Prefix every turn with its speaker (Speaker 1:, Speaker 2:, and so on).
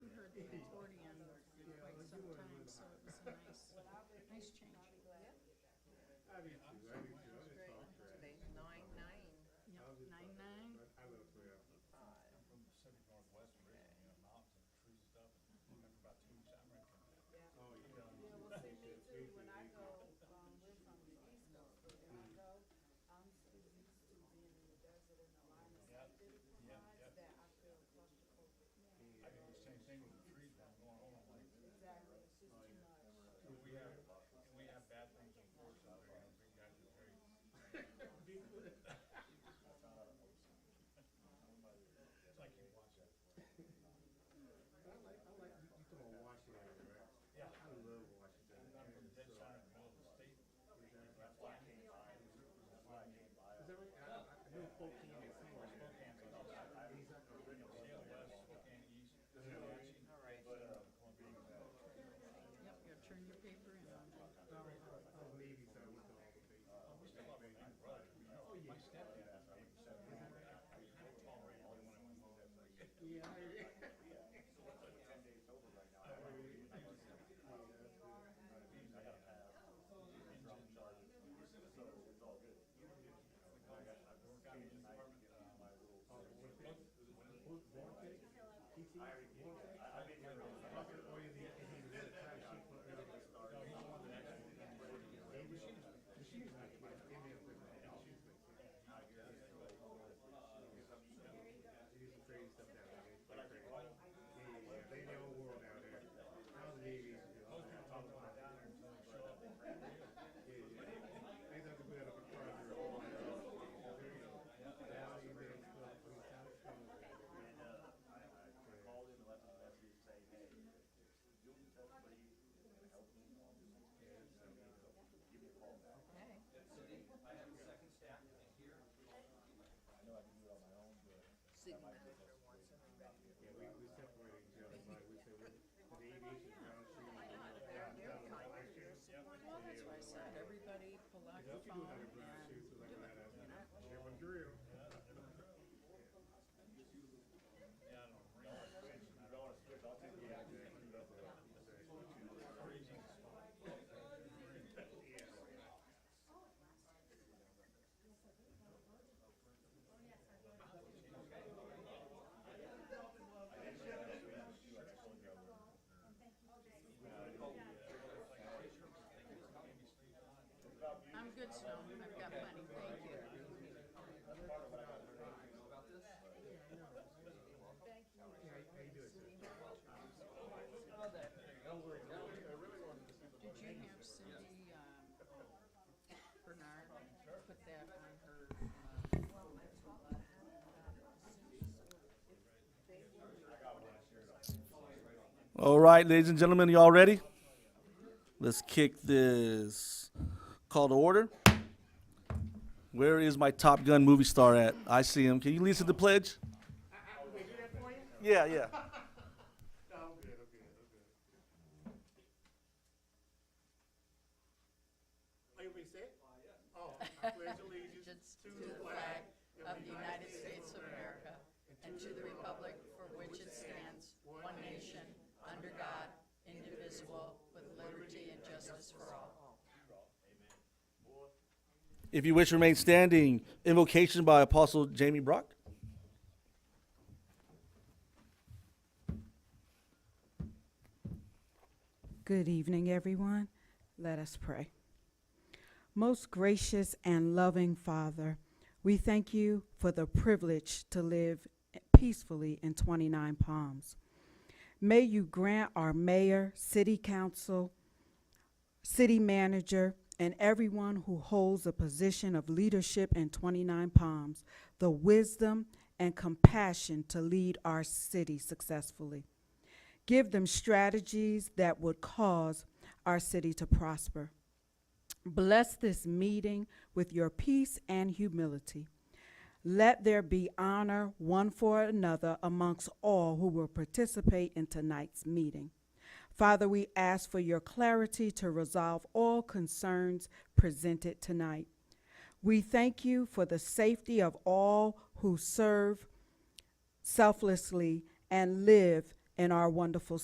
Speaker 1: nice, nice change.
Speaker 2: I do too, I do too, I just talk trash.
Speaker 3: Today's nine nine.
Speaker 1: Yep,
Speaker 2: I'll just talk
Speaker 1: nine
Speaker 2: trash.
Speaker 1: nine.
Speaker 2: I love Cleo.
Speaker 4: I'm from the Pacific Northwest originally, you know, mountains and trees and stuff, and lived for about two weeks, I'm ready to come back.
Speaker 2: Oh, yeah.
Speaker 5: Yeah, well, see, me too, when I go, um, we're from the East Coast, but when I go, I'm so used to being in the desert and the line of sight that it provides that I feel comfortable with.
Speaker 4: I did the same thing with the trees, when I'm going home, I'm like,
Speaker 5: Exactly, it's just too much.
Speaker 4: and we have, and we have bad things unfortunately, you know, big guys are very. uh, It's like you watch that.
Speaker 2: But I like, I like, you, you talking about Washington, right?
Speaker 4: Yeah.
Speaker 2: I love Washington.
Speaker 4: I'm from the dead
Speaker 2: Is
Speaker 4: center of the middle of the state. That's why I came by, that's why I came by.
Speaker 2: that right? I, I I know Spokane is somewhere.
Speaker 4: Spokane's on the outside. Yale West, Spokane East. Comanche,
Speaker 3: All right.
Speaker 4: But, uh, Columbia.
Speaker 1: Yep, you gotta turn your paper in on that.
Speaker 2: I was, I was Navy, so I went to all the things.
Speaker 4: We still have a big brother, you know, my stepdad, I mean, so we were, I was kind of tolerating him when I went home.
Speaker 2: Yeah. I-
Speaker 4: I got a pass. Engine charge. So it's all good. I got, I worked out in his apartment, uh, my little.
Speaker 2: What, Vortex? PT? Vortex?
Speaker 4: I've been here.
Speaker 2: Or is he, is he the time sheet for everybody?
Speaker 4: No, he's one of the next.
Speaker 2: Davis? The shoes make it, but it's in there for the shoes make it. It is some crazy stuff down there. It's pretty crazy. Yeah, yeah, yeah. They in their own world down there. I was Navy.
Speaker 4: Most people talk about down there until they show up.
Speaker 2: Yeah, yeah. They thought to put that up in front of their own. There you go. Now you're there, it's still, I mean, South Carolina.
Speaker 6: And, uh, I, I called him and left him a message saying, hey, you'll be touched, but you can help me on this. Give me a call back.
Speaker 3: Hey.
Speaker 4: I know I can do it on my own, but.
Speaker 3: Sitting after once in a while.
Speaker 2: Yeah, we, we separated each other, like we said, we- with the aviation ground shoes.
Speaker 3: They're, they're kinder, they're supportive.
Speaker 1: Well, that's why I said, everybody pull out your
Speaker 2: What you do without
Speaker 1: phone
Speaker 2: a
Speaker 1: and
Speaker 2: brown shoes, like, I had a, have a drill.
Speaker 4: Yeah, I don't know.
Speaker 6: You don't wanna switch, I'll take you.
Speaker 1: I'm good, Snow, I've got money, thank you.
Speaker 2: How you doing, sir?
Speaker 1: Did you have Cindy, um, Bernard put that on her, uh,
Speaker 7: All right, ladies and gentlemen, y'all ready? Let's kick this call to order. Where is my Top Gun movie star at? I see him. Can you lead us to the pledge? Yeah, yeah.
Speaker 2: No, I'm good, I'm good, I'm good. Are you ready to say it? Oh, I pledge allegiance
Speaker 1: allegiance to the flag of the United States of America and to the republic for which it stands, one nation, under God, indivisible, with liberty and justice for all.
Speaker 7: If you wish to remain standing, invocation by Apostle Jamie Brock.
Speaker 5: Good evening, everyone. Let us pray. Most gracious and loving Father, we thank you for the privilege to live peacefully in 29 Palms. May you grant our mayor, city council, city manager, and everyone who holds a position of leadership in 29 Palms the wisdom and compassion to lead our city successfully. Give them strategies that would cause our city to prosper. Bless this meeting with your peace and humility. Let there be honor one for another amongst all who will participate in tonight's meeting. Father, we ask for your clarity to resolve all concerns presented tonight. We thank you for the safety of all who serve selflessly and live in our wonderful